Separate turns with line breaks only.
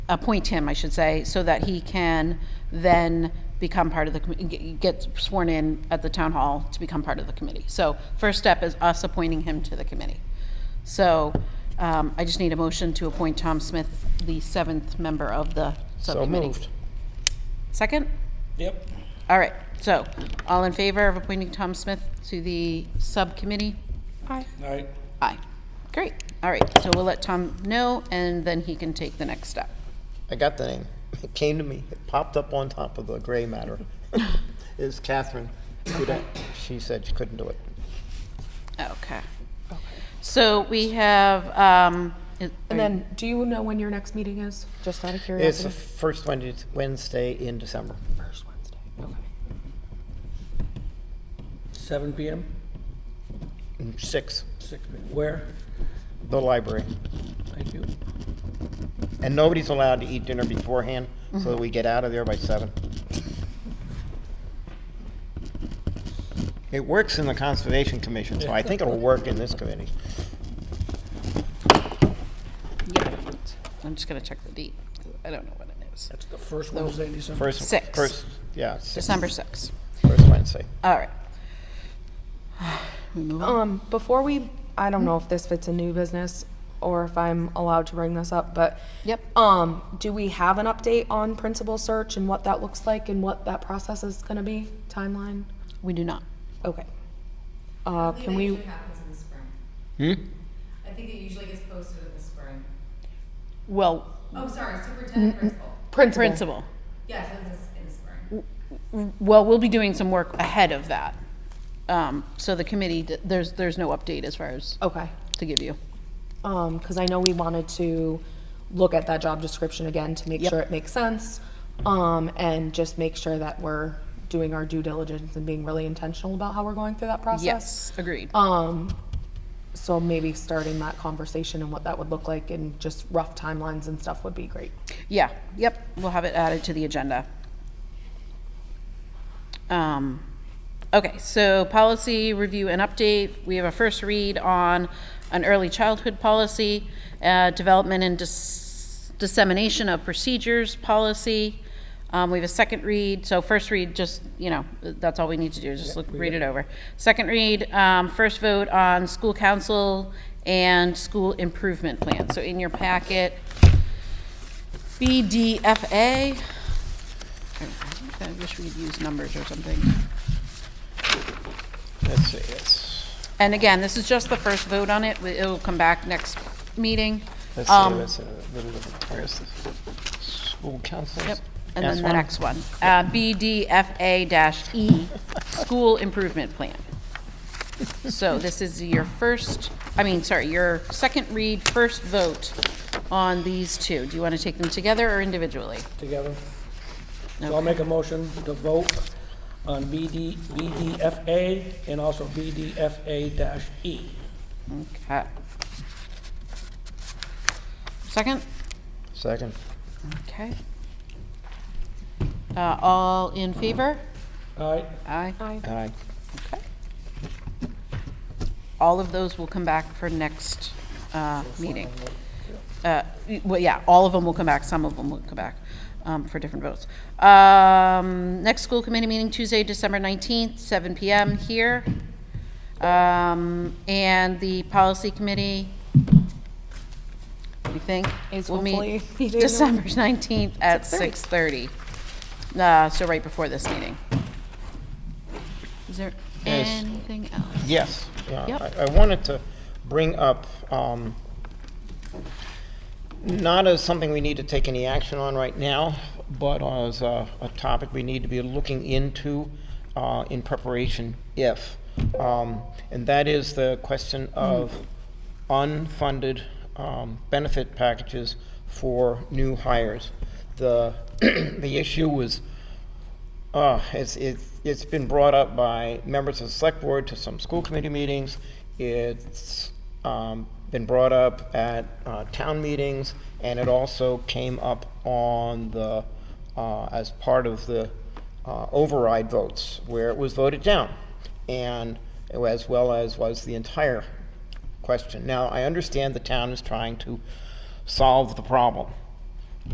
appoint him, I should say, so that he can then become part of the, commi- get- get sworn in at the town hall to become part of the committee. So first step is us appointing him to the committee. So um, I just need a motion to appoint Tom Smith, the seventh member of the
So
subcommittee.
moved.
Second?
Yep.
All right, so all in favor of appointing Tom Smith to the subcommittee? Aye.
All right.
Aye. Great, all right, so we'll let Tom know, and then he can take the next step.
I got the name. It came to me. It popped up on top of the gray matter. Is Catherine. who that- She said she couldn't do it.
Okay. So we have, um, it-
And then, do you know when your next meeting is? Just out of
It's
curiosity.
the first Wednesday- Wednesday in December.
first Wednesday. Okay.
7 PM?
Six,
6 p.m. Where?
the library.
Thank you.
And nobody's allowed to eat dinner beforehand, so that we get out of there by seven. It works in the Conservation Commission, so I think it'll work in this committee.
yeah, I'm just gonna check the date, 'cause I don't know what it is.
That's the first Wednesday in December?
First,
Six.
first, yeah, six,
December sixth,
first Wednesday.
all right. We move on?
Um, before we, I don't know if this fits a new business or if I'm allowed to bring this up, but.
Yep.
Um, do we have an update on principal search and what that looks like and what that process is gonna be, timeline?
We do not.
Okay. Uh, can
It
we,
usually happens in the spring. I think it usually gets posted in the spring.
Well,
Oh,
Mm,
sorry, superintendent principal.
principal,
principal,
Yes, it was in the spring.
well, we'll be doing some work ahead of that. Um, so the committee, d- there's, there's no update as far as
okay.
to give you.
Um, cause I know we wanted to look at that job description again to make
Yep.
sure it makes sense. Um, and just make sure that we're doing our due diligence and being really intentional about how we're going through that process.
Yes, agreed.
Um, so maybe starting that conversation and what that would look like and just rough timelines and stuff would be great.
Yeah, yep, we'll have it added to the agenda. Um, Okay, so policy review and update, we have a first read on an early childhood policy, uh, development and dis- dissemination of procedures policy. Um, We have a second read, so first read, just, you know, that's all we need to do, just look, read it over. Second read, um, first vote on school council and school improvement plan. So in your packet, BDFA. I think I wish we'd use numbers or something.
Let's see, it's,
And again, this is just the first vote on it. We- It'll come back next meeting.
let's see,
Um,
let's, uh, little bit of- where's this? School councils?
Yep, and then the
one?
next one. Uh, BDFA-E, E, School Improvement Plan. So this is your first, I mean, sorry, your second read, first vote on these two. Do you want to take them together or individually?
Together. So I'll make a motion to vote on BD, BDFA and also BDFA-E.
Okay. Second?
Second.
Okay. Uh, All in favor?
All right?
Aye.
Aye.
Okay. All of those will come back for next uh, meeting. Uh, y- Well, yeah, all of them will come back, some of them will come back um, for different votes. Um, Next school committee meeting Tuesday, December 19th, 7 PM here. Um, And the policy committee, we think,
Is
will meet
hopefully meeting on-
December 19th at 6:30. Uh, So right before this meeting. Is there
Yes.
anything else?
Yes. yeah,
Yep.
I I wanted to bring up, um, not as something we need to take any action on right now, but as a a topic we need to be looking into uh, in preparation if. Um, And that is the question of unfunded um, benefit packages for new hires. The, the issue was uh, it's, it's, it's been brought up by members of the select board to some school committee meetings. It's, um, been brought up at, uh, town meetings, and it also came up on the, uh, as part of the, uh, override votes, where it was voted down. And, as well as was the entire question. Now, I understand the town is trying to solve the problem.